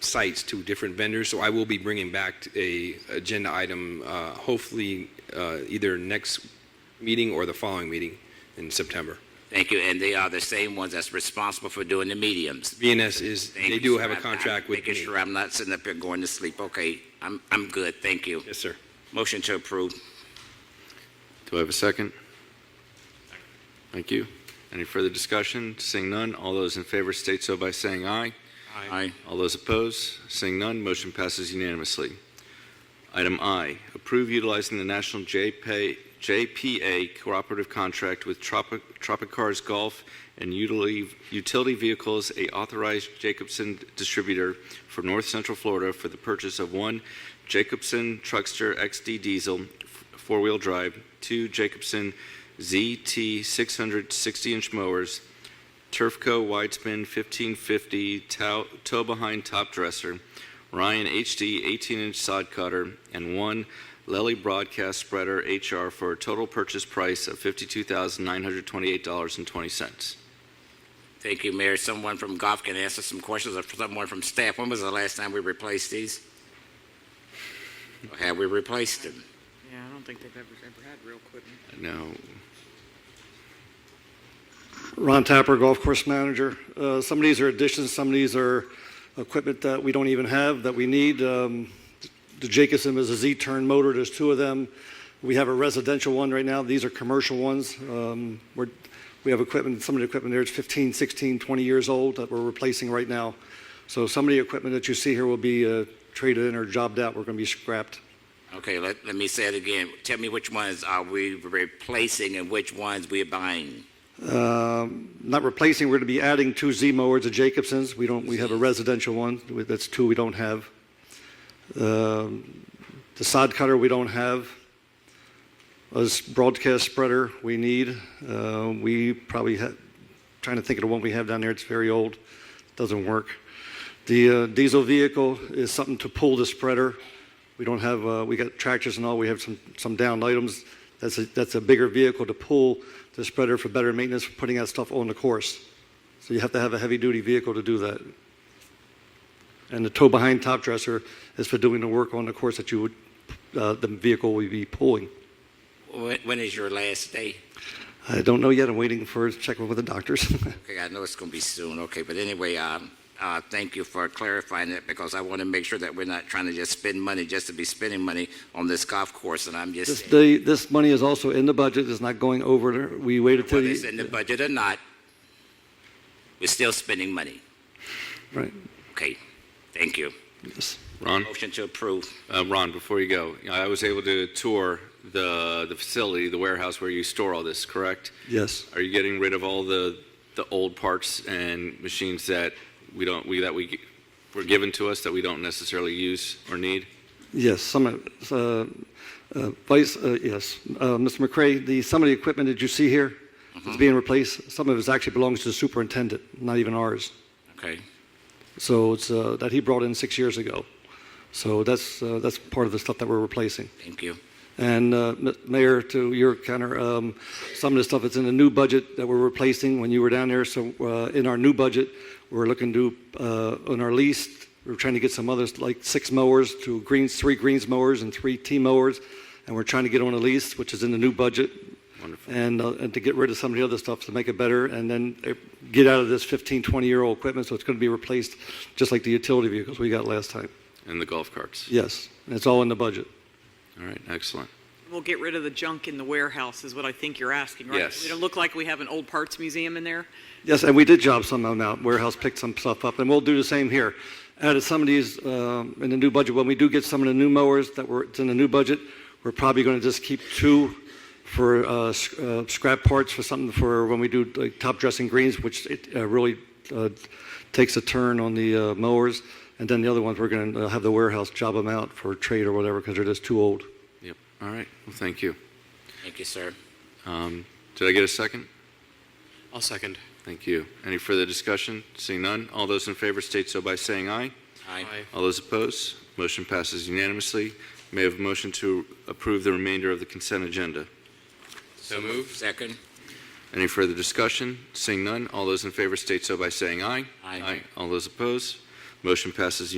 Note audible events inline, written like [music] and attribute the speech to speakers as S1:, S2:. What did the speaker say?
S1: sites to different vendors, so I will be bringing back a agenda item, uh, hopefully uh, either next meeting or the following meeting in September.
S2: Thank you, and they are the same ones that's responsible for doing the mediums.
S1: VNS is,
S2: Thank
S1: they
S2: you,
S1: do
S2: sir.
S1: have a
S2: I'm- I'm
S1: contract with
S2: Making
S1: me.
S2: sure I'm not sitting up here going to sleep. Okay, I'm, I'm good, thank you.
S1: Yes, sir.
S2: Motion to approve.
S3: Do I have a second? Thank you. Any further discussion? Seeing none, all those in favor state so by saying aye.
S2: Aye.
S3: All those opposed, seeing none, motion passes unanimously. Item I, approve utilizing the National JPA JPA Cooperative Contract with Tropic Cars Golf and Utility Utility Vehicles, a authorized Jacobson distributor for North Central Florida for the purchase of one Jacobson Truckster XD Diesel f- four-wheel drive, two Jacobson ZT 660-inch mowers, Turfco Widespin 1550 tow, tow behind top dresser, Ryan HD 18 inch sod cutter, and one Lely Broadcast Spreader HR for a total purchase price of $52,928.20.
S2: Thank you, Mayor. Someone from golf can answer some questions, or someone from staff. When was the last time we replaced these? Or have we replaced them?
S4: Yeah, I don't think they've ever, ever had real equipment.
S3: Now,
S5: Ron Tapper, Golf Course Manager. Uh, Some of these are additions, some of these are equipment that we don't even have that we need. Um, The Jacobson is a Z-turn motor, there's two of them. We have a residential one right now, these are commercial ones. Um, We're, we have equipment, some of the equipment there is 15, 16, 20 years old that we're replacing right now. So some of the equipment that you see here will be uh, traded in or jobbed out, we're going to be scrapped.
S2: Okay, let, let me say it again. Tell me which ones are we replacing and which ones we're buying?
S5: Um, Not replacing, we're going to be adding two Z mowers to Jacobson's. We don't, we have a residential one, with- that's two we don't have. Um, The sod cutter, we don't have. A s- broadcast spreader, we need. Uh, We probably have, trying to think of the one we have down there, it's very old, doesn't work. The uh, diesel vehicle is something to pull the spreader. We don't have, uh, we got tractors and all, we have some, some downed items. That's a, that's a bigger vehicle to pull the spreader for better maintenance, for putting that stuff on the course. So you have to have a heavy-duty vehicle to do that. And the tow-behind top dresser is for doing the work on the course that you would, uh, the vehicle would be pulling.
S2: When, when is your last day?
S5: I don't know yet, I'm waiting for, checking with the doctors. [laughs]
S2: Okay, I know it's going to be soon, okay, but anyway, um, uh, thank you for clarifying that because I want to make sure that we're not trying to just spend money just to be spending money on this golf course, and I'm
S5: This,
S2: just,
S5: the, this money is also in the budget, it's not going over, we waited till
S2: whether it's in the
S5: the,
S2: budget or not, we're still spending money.
S5: right,
S2: Okay, thank you.
S5: yes.
S3: Ron?
S2: Motion to approve.
S3: Uh, Ron, before you go, I was able to tour the, the facility, the warehouse where you store all this, correct?
S5: Yes,
S3: Are you getting rid of all the, the old parts and machines that we don't, we, that we, g- were given to us that we don't necessarily use or need?
S5: yes, some, of- uh, uh, Vice, uh, yes, Uh, Mr. McCray, the, some of the equipment that you see here is being replaced, some of it actually belongs to the superintendent, not even ours.
S2: Okay,
S5: So it's, uh, that he brought in six years ago. So that's, uh, that's part of the stuff that we're replacing.
S2: thank you.
S5: And uh, M- Mayor, to your counter, um, some of the stuff that's in the new budget that we're replacing when you were down there, so uh, in our new budget, we're looking to, uh, on our lease, we're trying to get some others, like six mowers to greens, three greens mowers and three T mowers, and we're trying to get on a lease, which is in the new budget.
S3: Wonderful.
S5: And, uh, and to get rid of some of the other stuff to make it better, and then uh, get out of this 15, 20-year-old equipment, so it's going to be replaced, just like the utility vehicles we got last time.
S3: And the golf carts?
S5: Yes, and it's all in the budget.
S3: All right, excellent.
S4: We'll get rid of the junk in the warehouse is what I think you're asking, right?
S3: Yes.
S4: It look like we have an old parts museum in there.
S5: Yes, and we did job some of them out. Warehouse picked some stuff up, and we'll do the same here. Added some of these um, in the new budget. When we do get some of the new mowers that were it's in the new budget, we're probably going to just keep two for uh, sc- uh, scrap parts for something for when we do like, top dressing greens, which it uh, really uh, takes a turn on the uh, mowers. And then the other ones, we're going to have the warehouse job them out for trade or whatever because they're just too old.
S3: Yep, all right, well, thank you.
S2: Thank you, sir.
S3: Um, Did I get a second?
S6: I'll second.
S3: Thank you. Any further discussion? Seeing none, all those in favor state so by saying aye.
S2: Aye.
S3: All those opposed, motion passes unanimously. May I have a motion to approve the remainder of the consent agenda?
S6: So moved.
S2: Second.
S3: Any further discussion? Seeing none, all those in favor state so by saying aye.
S2: Aye.
S3: All those opposed, motion passes